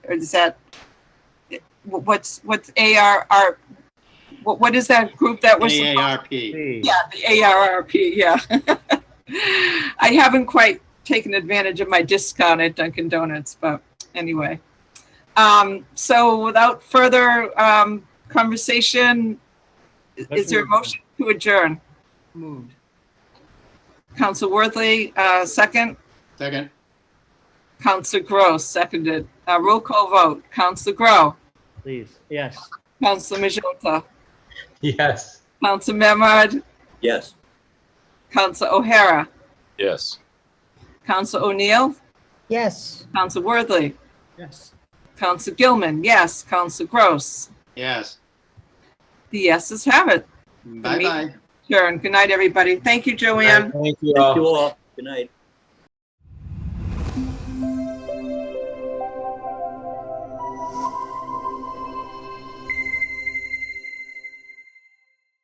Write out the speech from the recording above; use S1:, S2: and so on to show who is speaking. S1: or is that, wh- what's, what's ARR, what, what is that group that was?
S2: AARP.
S1: Yeah, the ARRP, yeah. I haven't quite taken advantage of my discount at Dunkin' Donuts, but anyway. Um, so without further, um, conversation, i- is there a motion to adjourn?
S3: Moved.
S1: Counsel Worthley, uh, second.
S2: Second,
S1: Counsel Gross, seconded. Uh, roll call vote. Counsel Grow,
S3: Please, yes.
S1: Counsel Majota,
S4: Yes.
S1: Counsel Memard,
S5: Yes.
S1: Counsel O'Hara,
S6: Yes.
S1: Counsel O'Neill,
S7: yes.
S1: Counsel Worthley,
S3: Yes.
S1: Counsel Gilman, yes. Counsel Gross.
S2: yes.
S1: The yeses have it.
S2: Bye-bye.
S1: Sure. And good night, everybody. Thank you, Joanne.
S4: Thank you all.
S5: Thank you all. Good night.